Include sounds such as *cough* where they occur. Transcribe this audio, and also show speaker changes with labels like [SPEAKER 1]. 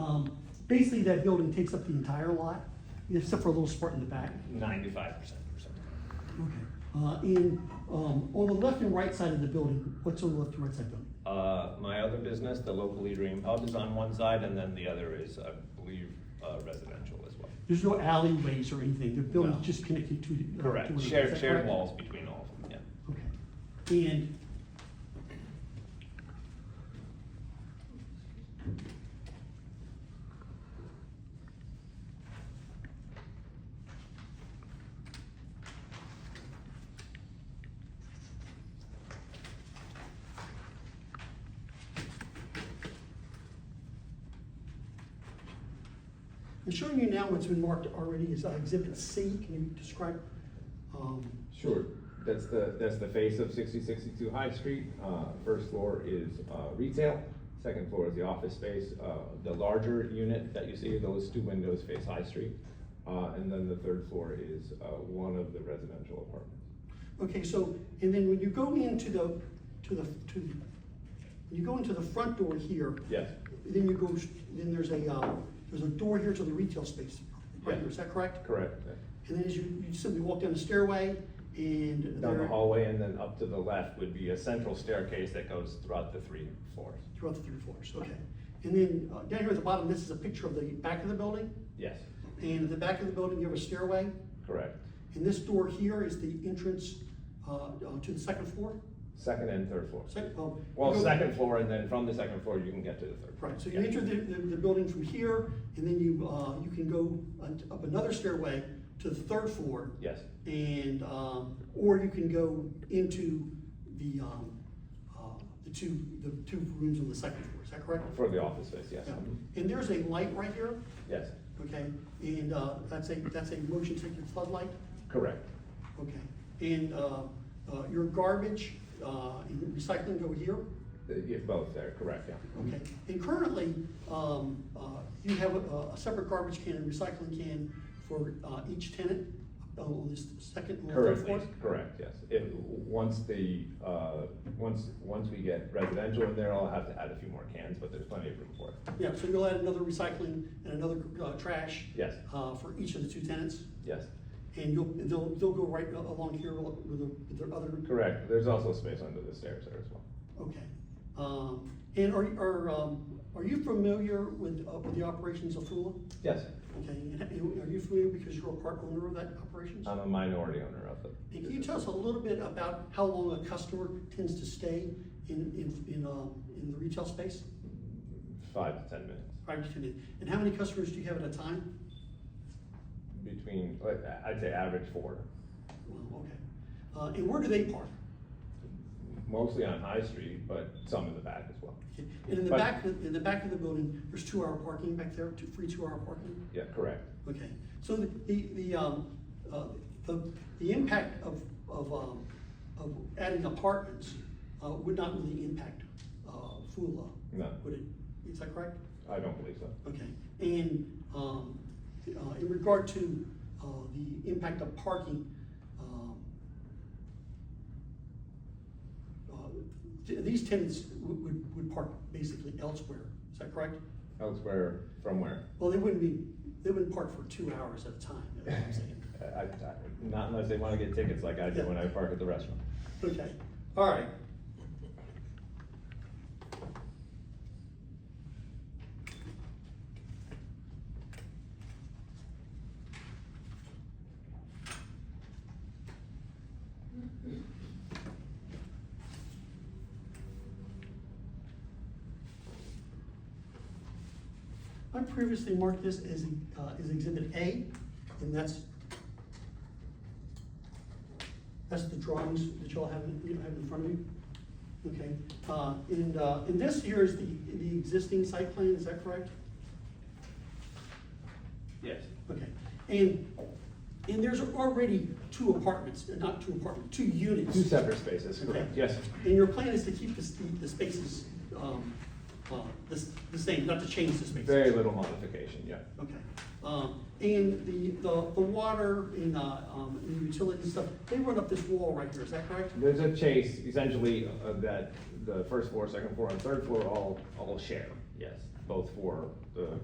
[SPEAKER 1] Um, basically that building takes up the entire lot, except for a little spot in the back.
[SPEAKER 2] ninety-five percent or something.
[SPEAKER 1] Okay. Uh, and, um, on the left and right side of the building, what's on the left and right side building?
[SPEAKER 2] Uh, my other business, the local Dream Hub, is on one side, and then the other is, I believe, uh, residential as well.
[SPEAKER 1] There's no alleyways or anything, the building's
[SPEAKER 2] No.
[SPEAKER 1] just connected to. uh, to
[SPEAKER 2] Correct,
[SPEAKER 1] it. Is
[SPEAKER 2] shared,
[SPEAKER 1] that
[SPEAKER 2] shared
[SPEAKER 1] correct?
[SPEAKER 2] walls between all of them, yeah.
[SPEAKER 1] Okay, and. I'm showing you now what's been marked already as uh, exhibit C, can you describe, um,
[SPEAKER 3] Sure, that's the, that's the face of sixty sixty-two High Street. Uh, first floor is, uh, retail, second floor is the office space. Uh, the larger unit that you see, those two windows face High Street. Uh, and then the third floor is, uh, one of the residential apartments.
[SPEAKER 1] Okay, so, and then when you go into the, to the, to, the when you go into the front door here.
[SPEAKER 3] Yes.
[SPEAKER 1] Then you go, s- then there's a, uh, there's a door here to the retail space, right here, is that correct?
[SPEAKER 3] Correct.
[SPEAKER 1] And then as you, you simply walk down the stairway and.
[SPEAKER 3] Down the
[SPEAKER 1] there-
[SPEAKER 3] hallway and then
[SPEAKER 2] And up to the left would be a central staircase that goes throughout the three floors.
[SPEAKER 1] Throughout the three floors, okay. And then, uh, down here at the bottom, this is a picture of the back of the building,
[SPEAKER 2] Yes,
[SPEAKER 1] and at the back of the building, you have a stairway,
[SPEAKER 2] correct.
[SPEAKER 1] and this door here is the entrance, uh, uh, to the second floor,
[SPEAKER 3] second and third floor.
[SPEAKER 1] second, oh. you
[SPEAKER 2] Well,
[SPEAKER 1] go-
[SPEAKER 2] second floor, and then from the second floor, you can get to the third. floor.
[SPEAKER 1] Right, so you
[SPEAKER 2] Yeah.
[SPEAKER 1] enter the, the, the building from here, and then you, uh, you can go un- up another stairway to the third floor.
[SPEAKER 2] Yes,
[SPEAKER 1] And, um, or you can go into the, um, uh, the two, the two rooms on the second floor, is that correct?
[SPEAKER 3] For the office space, yes.
[SPEAKER 1] Yeah. And there's a light right here,
[SPEAKER 3] Yes,
[SPEAKER 1] okay, and, uh, that's a, that's a motion sensor floodlight,
[SPEAKER 3] correct.
[SPEAKER 1] okay? And, uh, uh, your garbage, uh, and recycling go here,
[SPEAKER 3] Uh, yeah, both there, correct, yeah.
[SPEAKER 1] Okay, and currently, um, uh, you have a, a separate garbage can and recycling can for, uh, each tenant Oh, on this second and third floor?
[SPEAKER 3] Currently, correct, yes. If, once the, uh, once, once we get residential in there, I'll have to add a few more cans, but there's plenty of room for it.
[SPEAKER 1] Yeah, so you'll add another recycling and another, uh, trash?
[SPEAKER 3] Yes.
[SPEAKER 1] Uh, for each of the two tenants,
[SPEAKER 3] Yes,
[SPEAKER 1] and you'll, they'll, they'll go right uh, along here with the, with the other?
[SPEAKER 3] correct. There's also space under the stairs there as well.
[SPEAKER 1] Okay, um, and are, are, um, are you familiar with, uh, with the operations of Fula?
[SPEAKER 3] Yes,
[SPEAKER 1] Okay, and are you familiar because you're a part owner of that operations?
[SPEAKER 3] I'm a minority owner of the.
[SPEAKER 1] And can you tell us a little bit about how long a customer tends to stay in, in, in, um, in the retail space?
[SPEAKER 3] Five to ten minutes.
[SPEAKER 1] Five to ten minutes. And how many customers do you have at a time?
[SPEAKER 3] Between, like, I'd say average four,
[SPEAKER 1] Well, okay. Uh, and where do they park?
[SPEAKER 3] mostly on High Street, but some in the back as well.
[SPEAKER 1] Okay. And in the
[SPEAKER 3] But-
[SPEAKER 1] back, in the back of the building, there's two-hour parking back there, two, free two-hour parking?
[SPEAKER 3] Yeah, correct.
[SPEAKER 1] Okay, so the, the, the, um, uh, the, the impact of, of, um, of adding apartments, uh, would not really impact, uh, Fula?
[SPEAKER 3] No.
[SPEAKER 1] Would it? Is that correct?
[SPEAKER 3] I don't believe so.
[SPEAKER 1] Okay, and, um, uh, in regard to, uh, the impact of parking, um, uh, th- these tenants would, would, would park basically elsewhere, is that correct?
[SPEAKER 3] Elsewhere, from where?
[SPEAKER 1] Well, they wouldn't be, they wouldn't park for two hours at a time, is what I'm saying.
[SPEAKER 3] *laughs* I, I, not unless they wanna get tickets like I do when I park at the restaurant.
[SPEAKER 1] Okay, all right. I previously marked this as, uh, as exhibit A, and that's that's the drawings that y'all have, you have in front of you. Okay, uh, and, uh, and this here is the, the existing site plan, is that correct?
[SPEAKER 2] yes.
[SPEAKER 1] Okay, and, and there's already two apartments, uh, not two apartments, two units.
[SPEAKER 3] Two separate spaces,
[SPEAKER 1] Okay.
[SPEAKER 3] correct, yes.
[SPEAKER 1] And your plan is to keep the, s- the spaces, um, uh, the, s- the same, not to change the spaces?
[SPEAKER 3] Very little modification, yeah.
[SPEAKER 1] Okay, um, and the, the, the water and, uh, um, and the utility stuff, they run up this wall right here, is that correct?
[SPEAKER 3] There's a chase, essentially, uh, that the first floor, second floor, and third floor all, all share, yes, both for the